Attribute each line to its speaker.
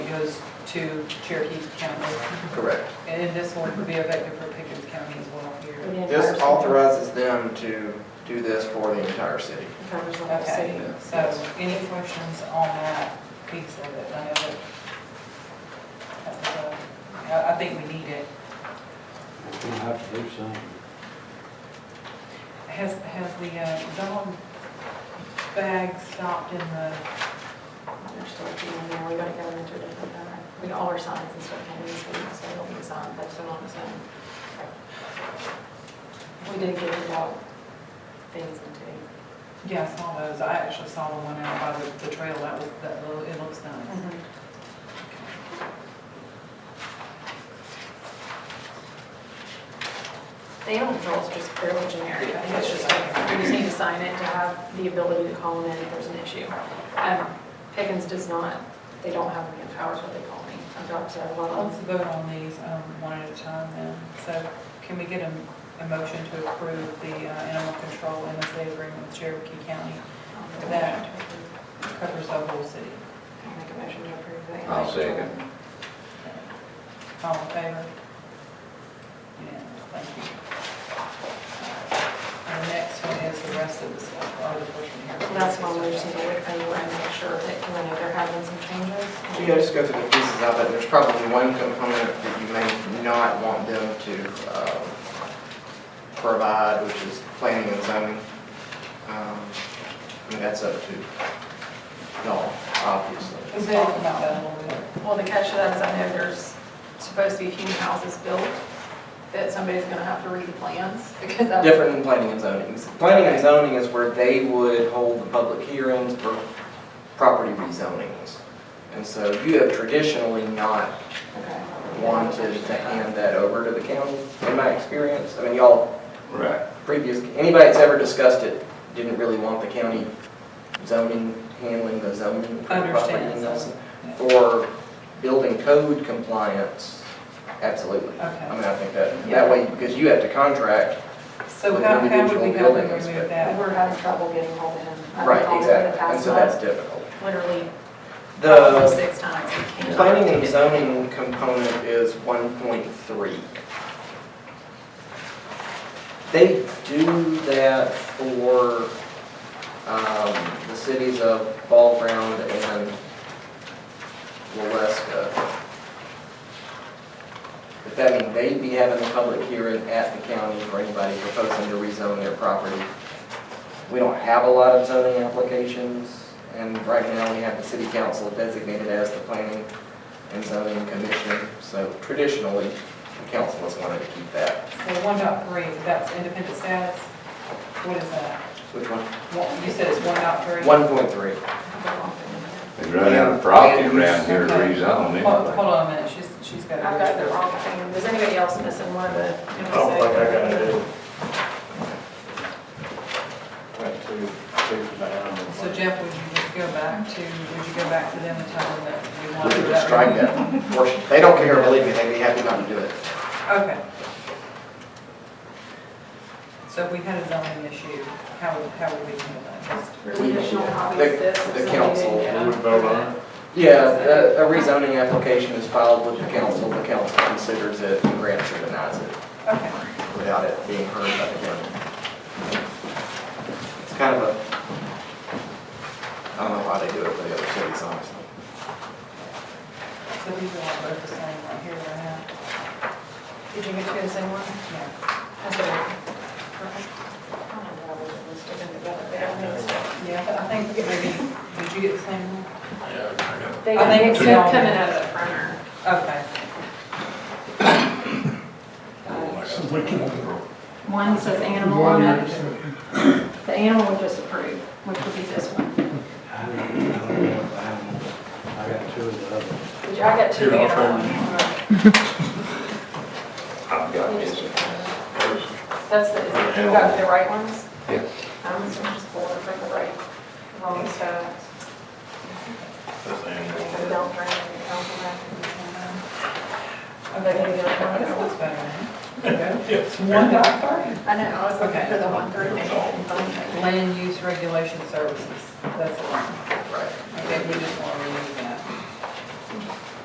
Speaker 1: goes to Cherokee County,
Speaker 2: Correct.
Speaker 1: and then this one would be effective for Pickens County as well here.
Speaker 2: This authorizes them to do this for the entire city.
Speaker 3: Covers the whole city.
Speaker 1: Okay, so any questions on that piece of it? I know that, that was a- I I think we need it.
Speaker 4: We'll have to do something.
Speaker 1: Has, has the uh, dog bag stopped in the,
Speaker 3: They're still looking in there, we gotta go into a different banner. We got all our signs and stuff in this week, so it'll be signed, that's still on its own. We did get the dog things into.
Speaker 1: yeah, I saw those. I actually saw the one out by the, the trail. That was, that, lo- it looks nice.
Speaker 3: Mm-hmm. The animal control is just fairly generic, I think it's just,
Speaker 1: Yeah.
Speaker 3: you just need to sign it to have the ability to call them in if there's an issue. Um, Pickens does not, they don't have any powers, what they call me, I've talked to a lot of
Speaker 1: Let's vote on these um, one at a time then. So can we get a, a motion to approve the uh, animal control MSA agreement with Cherokee County?
Speaker 3: them.
Speaker 1: That covers the whole city.
Speaker 3: I'll make a motion to approve the
Speaker 5: I'll
Speaker 3: animal
Speaker 5: second.
Speaker 3: control.
Speaker 1: All in favor? Yeah, thank you. And the next one is the rest of the stuff, all the portion here.
Speaker 3: So That's one we just need to look over and make sure that, you know, they're having some changes.
Speaker 2: You guys just go through the pieces of it, there's probably one component that you may not want them to um, provide, which is planning and zoning. Um, I mean, that's up to y'all, obviously.
Speaker 1: Let's talk about that a little bit.
Speaker 3: Well, the catch to that is I know there's supposed to be a few houses built, that somebody's gonna have to read the plans, because that's.
Speaker 2: Different than planning and zoning. Planning and zoning is where they would hold the public hearings for property rezonings. And so you have traditionally not
Speaker 3: Okay.
Speaker 2: wanted to hand that over to the county, in my experience. I mean, y'all,
Speaker 5: Right.
Speaker 2: previous, anybody that's ever discussed it didn't really want the county zoning, handling the zoning. for property
Speaker 1: Understand, so-
Speaker 2: and For building code compliance, absolutely.
Speaker 1: Okay.
Speaker 2: I mean, I think that, that way, because you have to contract
Speaker 1: So
Speaker 2: With
Speaker 1: how, how would we
Speaker 2: individual
Speaker 1: go and
Speaker 2: buildings,
Speaker 1: remove
Speaker 2: but-
Speaker 3: And
Speaker 1: that?
Speaker 3: We're having trouble getting hold of him. I've
Speaker 2: Right,
Speaker 3: called him the
Speaker 2: exactly, and
Speaker 3: past
Speaker 2: so that's
Speaker 3: month,
Speaker 2: difficult.
Speaker 3: Literally, probably
Speaker 2: The
Speaker 3: six times. We can't-
Speaker 2: planning and zoning component is one point three. They do that for, um, the cities of Ball Ground and Waleska. But that means they'd be having a public hearing at the county for anybody proposing to rezone their property. We don't have a lot of zoning applications, and right now we have the city council designated as the planning and zoning commission. So traditionally, the council has wanted to keep that.
Speaker 1: So one dot three, that's independent status? What is that?
Speaker 2: Which one?
Speaker 1: What- You said it's one dot three?
Speaker 2: One point three.
Speaker 5: They run out of property around here to
Speaker 1: Hold
Speaker 5: rezone
Speaker 1: hold
Speaker 5: anyway.
Speaker 1: on a minute, she's, she's got. it.
Speaker 3: I've got the wrong thing. Does anybody else missing one of the?
Speaker 6: I don't think I got it. Went to, to the animal.
Speaker 1: So Jeff, would you just go back to, would you go back to them and tell them that you
Speaker 2: We
Speaker 1: want to
Speaker 2: could
Speaker 1: do that?
Speaker 2: just strike that portion. They don't care, believe me, they'd be happy not to do it.
Speaker 1: Okay. So if we had a zoning issue, how would, how would we handle that? Just-
Speaker 3: There's additional copies of this.
Speaker 2: The-
Speaker 3: if
Speaker 2: the
Speaker 3: somebody
Speaker 2: council
Speaker 3: didn't get them.
Speaker 6: would vote on it.
Speaker 2: Yeah, a a rezoning application is filed with the council, the council considers it, and grants or denies it
Speaker 1: Okay,
Speaker 2: without it being heard by the county. It's kind of a, I don't know why they do it for the other cities, honestly.
Speaker 1: so these are all both the same right here, right now?
Speaker 3: Did you get two of the same one?
Speaker 1: Yeah.
Speaker 3: That's what I. I don't know why we didn't stick them together. They don't mix it.
Speaker 1: Yeah, but I think maybe, did you get the same one?
Speaker 3: They
Speaker 1: I think it's
Speaker 3: mix it
Speaker 1: all-
Speaker 3: coming out of the printer.
Speaker 1: Okay.
Speaker 7: One says animal on it. The animal was just approved, which would be this one.
Speaker 4: I don't I don't know if I have- I got two of the others.
Speaker 3: Did you, I got two.
Speaker 6: Here, I'll
Speaker 3: animal
Speaker 6: find
Speaker 3: ones.
Speaker 5: I've got this.
Speaker 3: That's the, you got the right ones?
Speaker 5: Yeah.
Speaker 3: I'm just gonna just pull it from the right, wrong side.
Speaker 6: That's
Speaker 3: So
Speaker 6: animal.
Speaker 3: we don't bring it, don't come back.
Speaker 1: Okay,
Speaker 3: Maybe the other one.
Speaker 1: this looks better. Okay.
Speaker 6: Yes.
Speaker 1: One dot three.
Speaker 3: I know, I was looking for the one through.
Speaker 1: Land use regulation services, that's the one.
Speaker 2: Right.
Speaker 1: Okay, we just want